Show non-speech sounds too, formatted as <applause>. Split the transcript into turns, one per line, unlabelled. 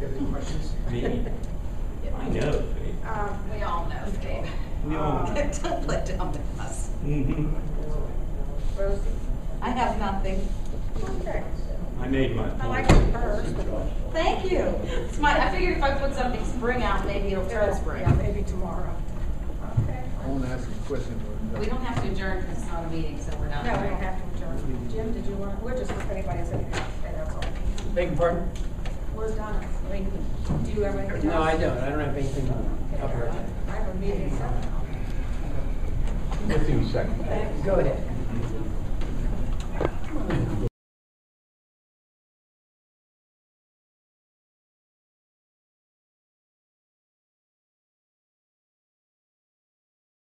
you have any questions? <laughs>
Me? I know, Faith.
Um,
We all know, Dave.
We all
Oh.
know.
<laughs> Don't let down to us.
Mhm.
Rosie?
I have nothing.
Okay.
I made my
<laughs> I like
point.
it first.
Thank you. It's my, I figured if I put something spring out, maybe it'll turn spring.
Yeah, maybe tomorrow. Okay.
I want to ask a question. but-
We don't have to adjourn because it's not a meeting, so we're
No,
not.
we don't have to adjourn. Jim, did you want, we're just, if anybody has anything to say, that's all.
Beg your pardon?
Where's Donna? I mean, do you have anything?
No, I don't. I don't have anything on up right now.
I have a meeting, so.
With you, second.
Go ahead.